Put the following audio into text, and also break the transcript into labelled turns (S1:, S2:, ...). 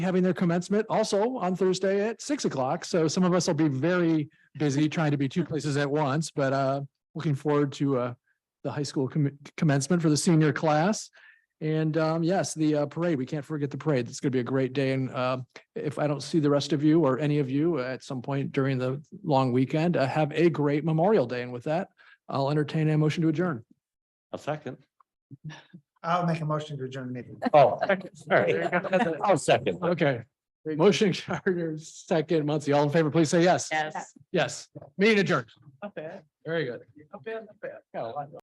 S1: having their commencement also on Thursday at six o'clock. So some of us will be very busy trying to be two places at once, but uh, looking forward to uh, the high school comm- commencement for the senior class. And um, yes, the uh, parade, we can't forget the parade. It's going to be a great day. And uh, if I don't see the rest of you or any of you at some point during the long weekend, uh, have a great Memorial Day. And with that, I'll entertain a motion to adjourn.
S2: A second.
S3: I'll make a motion to adjourn the meeting.
S2: Oh, all right. I'll second.
S1: Okay. Motion Carter, second, Muncy, all in favor, please say yes.
S4: Yes.
S1: Yes, meeting adjourned.
S3: Not bad,
S1: Very good.
S3: not bad, not bad.